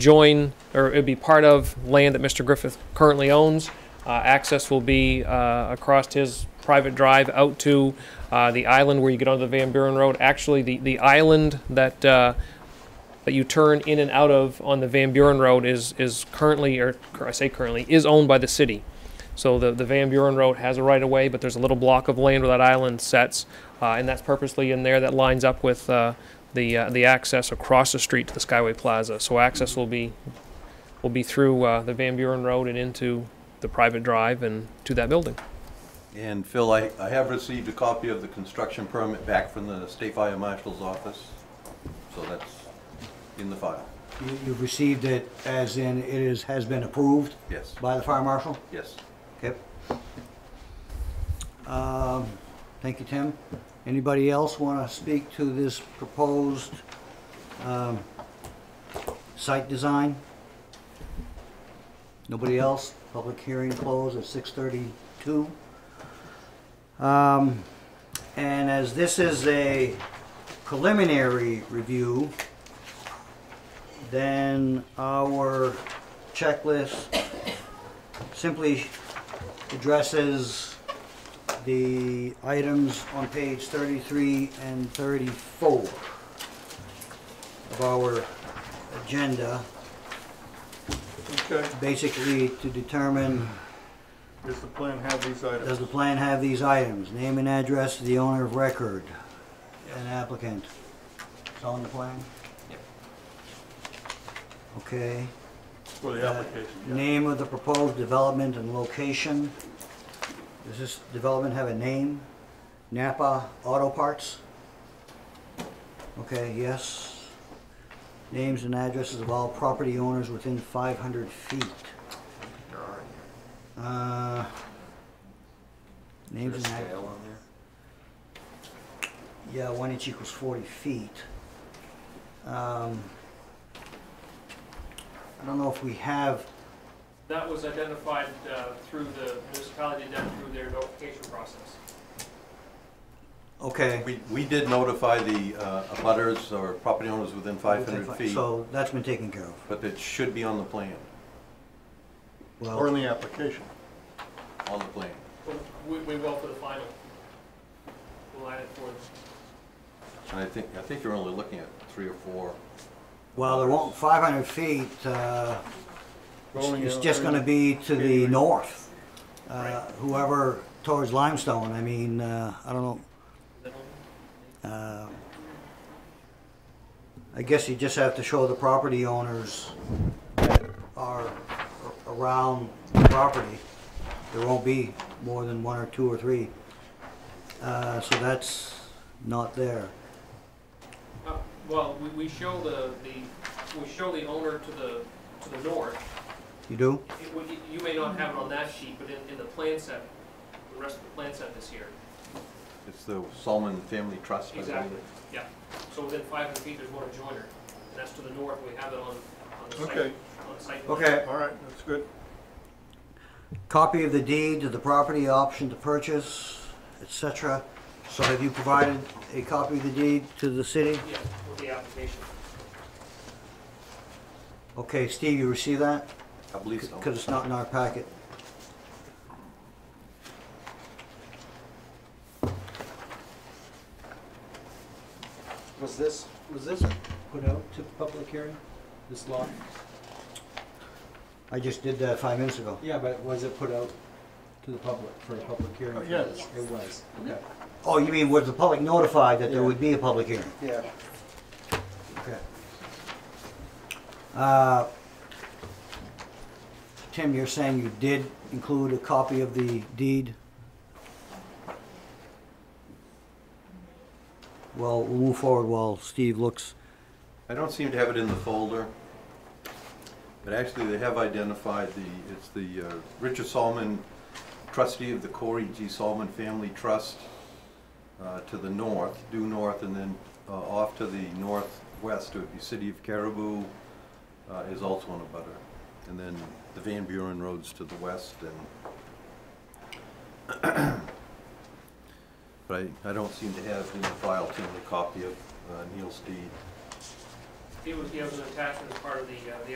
adjoin, or it'd be part of land that Mr. Griffith currently owns. Uh, Access will be uh, across his private drive out to uh, the island where you get onto the Van Buren Road. Actually, the, the island that, uh, that you turn in and out of on the Van Buren Road is, is currently, or I say currently, is owned by the city. So the, the Van Buren Road has a right of way, but there's a little block of land where that island sets, uh, and that's purposely in there that lines up with uh, the uh, the access across the street to the Skyway Plaza. So access will be will be through uh, the Van Buren Road and into the private drive and to that building. And Phil, I, I have received a copy of the construction permit back from the State Fire Marshal's office, so that's in the file. You- You've received it as in it is, has been approved Yes, by the fire marshal? yes. Okay. Um, Thank you, Tim. Anybody else want to speak to this proposed um, site design? Nobody else? Public hearing closed at 6:32. Um, And as this is a preliminary review, then our checklist simply addresses the items on page 33 and 34 of our agenda, Okay, basically to determine, does the plan have these does items? the plan have these items? Name and address of the owner of record and applicant. It's on the plan? Yep. Okay. For the application, yeah. Name of the proposed development and location. Does this development have a name? Napa Auto Parts? Okay, yes. Names and addresses of all property owners within 500 feet. Uh, Names and addresses. Yeah, one inch equals 40 feet. Um, I don't know if we have That was identified uh, through the municipality done through their notification process. Okay. We, we did notify the uh, abutters or property owners within 500 feet, So that's been taken care of. but it should be on the plan, Or in Well, the application. on the plan. We, we will for the final. We'll add it for. And I think, I think you're only looking at three or four. well, there won't, 500 feet, uh, it's Rolling it's out just gonna area. be to the Area. north. Uh, Whoever, towards Limestone, I mean, uh, I don't know. uh, I guess you just have to show the property owners that are a- around the property. There won't be more than one or two or three. Uh, So that's not there. Uh, Well, we, we show the, the, we show the owner to the, to the north. You do? It would- You may not have it on that sheet, but in, in the plan set, the rest of the plan set this year. It's the Solomon Family Trust, I believe. Exactly, yeah. So within five hundred feet, there's one adjoiner, and that's to the north, we have it on, on the site. Okay. on the site plan. Okay. All right, that's good. copy of the deed to the property, option to purchase, etc. So have you provided a copy of the deed to the city? Yeah, with the application. Okay, Steve, you received that? I believe so. Because it's not in our packet. Was this, was this put out to public hearing, this law? I just did that five minutes ago. Yeah, but was it put out to the public, for a public hearing? Uh, yes. It was, okay. Oh, you mean was the public notified that there would be a public hearing? Yeah. Okay. Uh, Tim, you're saying you did include a copy of the deed? Well, we'll move forward while Steve looks. I don't seem to have it in the folder, but actually they have identified the, it's the uh, Richard Solomon trustee of the Corey G. Solomon Family Trust uh, to the north, due north, and then uh, off to the northwest, it would be City of Caribou uh, is also on a butter. And then the Van Buren Road's to the west and but I, I don't seem to have in the file, Tim, a copy of uh, Neil's deed. It was, yeah, it was an attachment as part of the, uh, the